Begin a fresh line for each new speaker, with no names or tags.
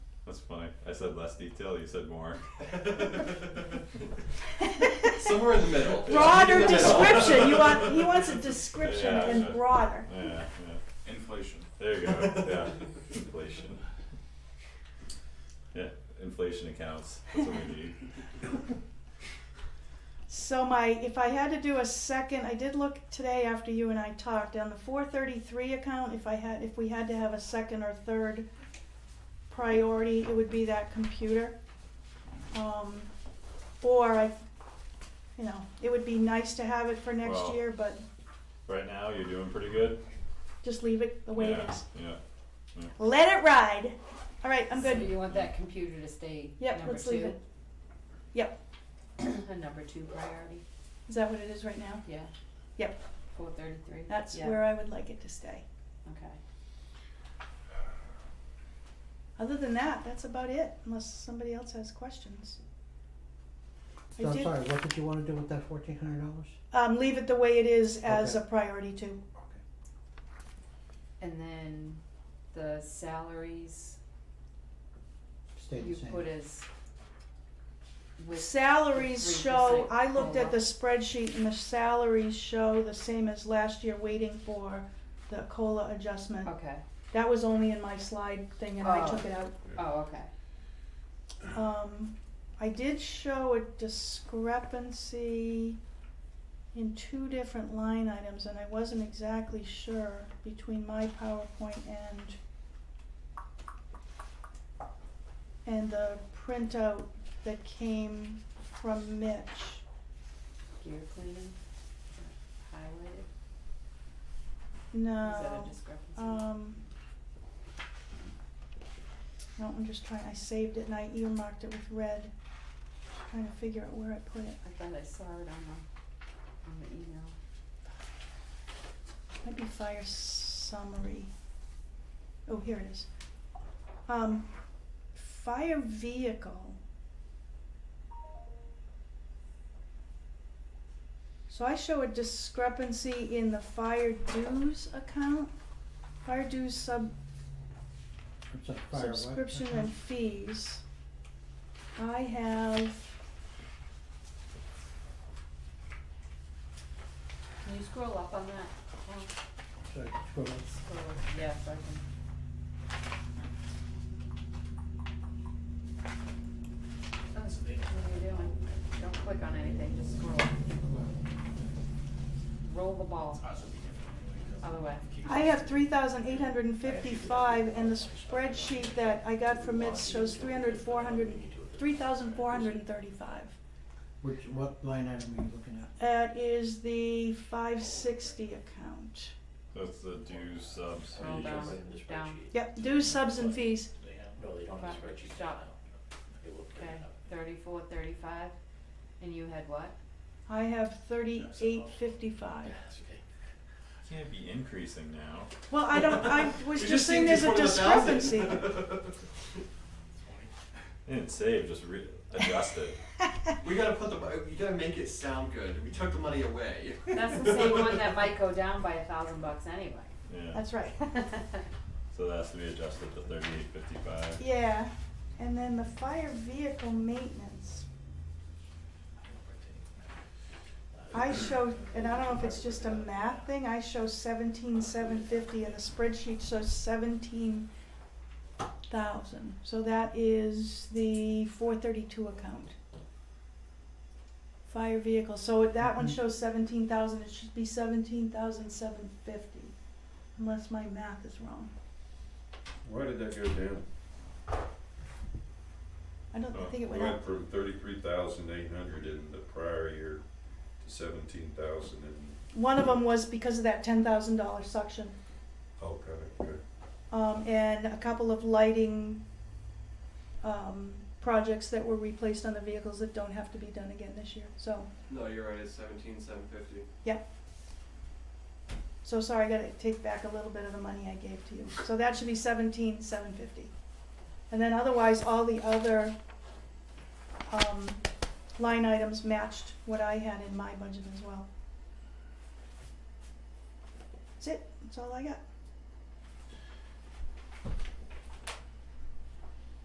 That's funny. I said less detail, you said more.
Somewhere in the middle.
Broader
In the
Broader
middle.
description, you want, he wants a description
Yeah,
and
sure.
broader.
Yeah, yeah.
Inflation.
There you go. Yeah. Inflation. Yeah, inflation accounts. That's what we need.
So my, if I had to do a second, I did look today after you and I talked on the four thirty-three account, if I had, if we had to have a second or third priority, it would be that computer. Um, or I, you know, it would be nice to have it for next
Well-
year, but
Right now, you're doing pretty good.
just leave it the way it
yeah,
is.
Yeah.
Let it ride. All right, I'm
So
good.
you want that computer to stay
Yep,
number
let's leave
two,
it. Yep,
a number two priority,
is that what it is right now?
yeah?
Yep.
Four thirty-three?
That's where I would like it to stay.
Okay.
Other than that, that's about it, unless somebody else has questions. I
So, I'm
did-
sorry, what did you wanna do with that fourteen hundred dollars?
Um, leave it the way it is as a
Okay.
priority too.
And then the salaries
Stay the
you
same.
put as with,
Salaries show,
3%
I looked at the
COLA.
spreadsheet and the salaries show the same as last year, waiting for the COLA adjustment.
okay,
That was only in my slide thing and I
Oh.
took it out.
oh, okay,
Um, I did show a discrepancy in two different line items, and I wasn't exactly sure between my PowerPoint and and the printout that came from Mitch.
gear cleaning, highway,
No.
is that a discrepancy?
Um. No, I'm just trying, I saved it and I earmarked it with red, trying to figure out where I put it.
I thought I saw it on the, on the email.
Might be fire summary. Oh, here it is. Um, fire vehicle. So I show a discrepancy in the fire dues account, fire dues sub
It's a fire what?
subscription
Okay.
and fees. I have,
Can you scroll up on that? Paul?
So, scroll up.
Scroll, up. yeah, so I can. What are you doing? Don't click on anything, just scroll. Roll the ball other way.
I have three thousand eight hundred and fifty-five and the spreadsheet that I got from Mitch shows three hundred, four hundred, three thousand four hundred and thirty-five.
Which, what line item are you looking at?
That is the five sixty account.
That's the dues subs.
Roll
fees.
down.
Yep, dues, subs and fees.
They have, no, they don't
Okay,
have a spreadsheet.
stop.
They will print
Okay,
it out.
thirty-four, thirty-five, and you had what?
I have thirty-eight fifty-five.
That's okay.
Can't be increasing now.
Well, I don't, I was
We
just saying
think
there's a
it's one of the
discrepancy.
thousands.
I didn't save, just re- adjust it.
we gotta put the. You gotta make it sound good. We took the money away.
That's the same one that might go down by a thousand bucks anyway.
Yeah.
That's right.
So that has to be adjusted to 38.55.
Yeah, and then the fire vehicle maintenance. I show, and I don't know if it's just a math thing, I show seventeen seven fifty and the spreadsheet shows seventeen thousand. So that is the four thirty-two account. Fire vehicle, so if that one
Mhm.
shows seventeen thousand, it should be seventeen thousand seven fifty, unless my math is wrong.
Why did that go down?
I don't, I
Oh,
think it went
We
up.
went from thirty-three thousand eight hundred in the prior year to seventeen thousand and,
One of them was because of that ten thousand dollar suction,
okay, okay.
um, and a couple of lighting, um, projects that were replaced on the vehicles that don't have to be done again this year, so,
No, you're right. It's seventeen seven fifty.
so sorry, I gotta take back a little bit of the money I gave to you, so that should be seventeen, seven fifty. And then otherwise, all the other, um, line items matched what I had in my budget as well. That's it, that's all I got.